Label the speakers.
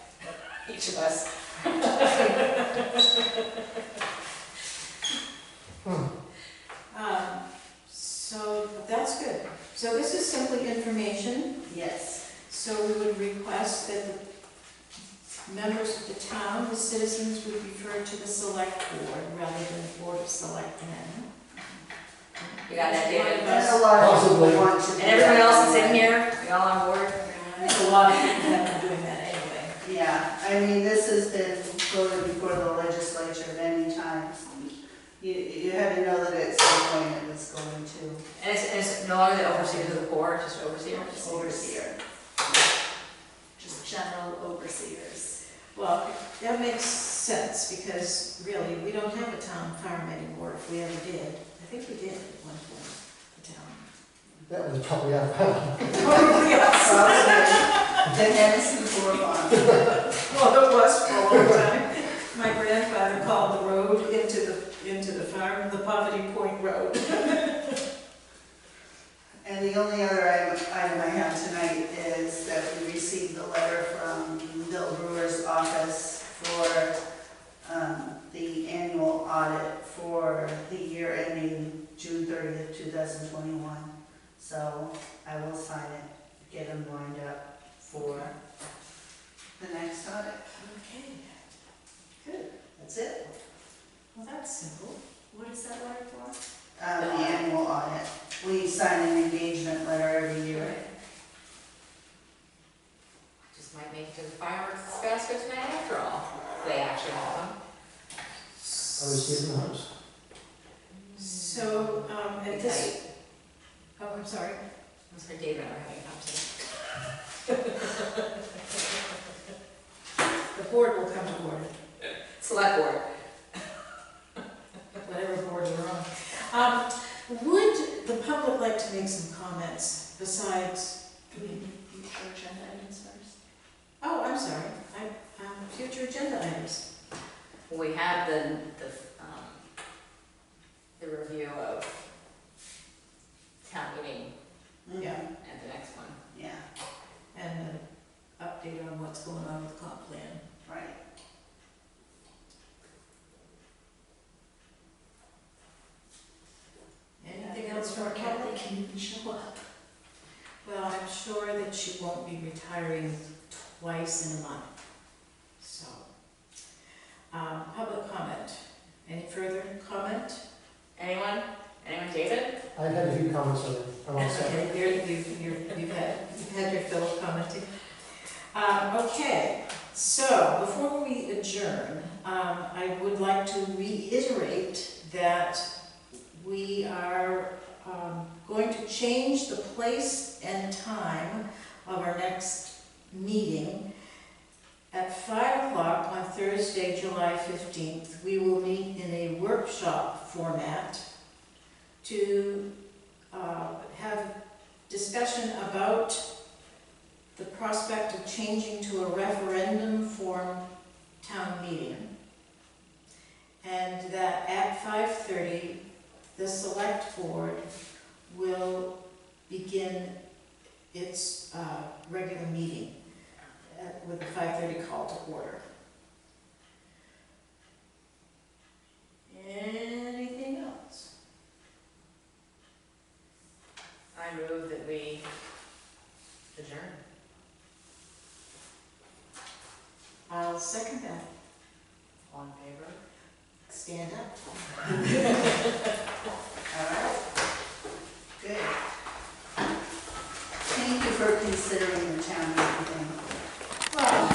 Speaker 1: each of us.
Speaker 2: Um, So that's good. So this is simply information,
Speaker 1: Yes.
Speaker 2: so we would request that the members of the town, the citizens, would refer to the select board rather than board of selectmen.
Speaker 1: You got that, David?
Speaker 2: Yes.
Speaker 3: a lot of people
Speaker 4: Possibly.
Speaker 3: want to. do
Speaker 1: And everyone
Speaker 3: that.
Speaker 1: else is in here, we all on board?
Speaker 2: I think a lot of people have been doing that anyway.
Speaker 3: Yeah, I mean, this has been voted before the legislature many times. You, you had to know that at some point it was going to
Speaker 1: And it's, and it's no longer the overseer of the board, just overseer?
Speaker 3: overseer. Just general overseers.
Speaker 2: Well, that makes sense, because really, we don't have a town farm anymore, if we ever did. I think we did at one point, the town.
Speaker 4: That was probably out of hand.
Speaker 2: Probably us.
Speaker 3: Probably, the Dennis and Bourbon.
Speaker 2: Well, it was for a long time. My grandfather called the road into the, into the farm, the Poverty Point Road.
Speaker 3: And the only other item item I have tonight is that we received a letter from Bill Brewer's office for um, the annual audit for the year ending June 30th, 2021. So I will sign it, get him lined up for the next audit.
Speaker 2: Okay,
Speaker 3: That's it,
Speaker 2: well, that's simple.
Speaker 1: What is that word for?
Speaker 3: Um, the annual audit. We sign an engagement letter every year.
Speaker 1: Just might make it to the fireworks basket tonight after all. They actually have them.
Speaker 4: I was given the house.
Speaker 2: So, um, at this, oh, I'm sorry.
Speaker 1: I'm sorry, David, and I are having a conversation.
Speaker 2: The board will come to order,
Speaker 1: Select board.
Speaker 2: whatever board you're on. Um, would the public like to make some comments besides,
Speaker 1: Future agenda items first.
Speaker 2: oh, I'm sorry, I, um, future agenda items.
Speaker 1: We have the, the, um, the review of town meeting
Speaker 2: Yeah.
Speaker 1: at the next one.
Speaker 3: Mm-hmm. Yeah,
Speaker 2: And an update on what's going on with the comp plan.
Speaker 3: right.
Speaker 2: Anything else for Kelly? Can you show up? Well, I'm sure that she won't be retiring twice in a month, so. Um, public comment. Any further comment?
Speaker 1: Anyone? Anyone, David?
Speaker 4: I had a few comments on it. I'm all set.
Speaker 2: Okay, there, you've, you're- you've had, you've had your fill of commenting. Um, okay, so before we adjourn, um, I would like to reiterate that we are, um, going to change the place and time of our next meeting. At five o'clock on Thursday, July fifteenth, we will meet in a workshop format to uh, have discussion about the prospect of changing to a referendum form town meeting. And that at five thirty, the select board will begin its uh, regular meeting uh, with the five thirty call to order. Anything else?
Speaker 1: I move that we adjourn.
Speaker 2: I'll second that.
Speaker 1: All in favor?
Speaker 2: Stand up.
Speaker 3: All right, good. Thank you for considering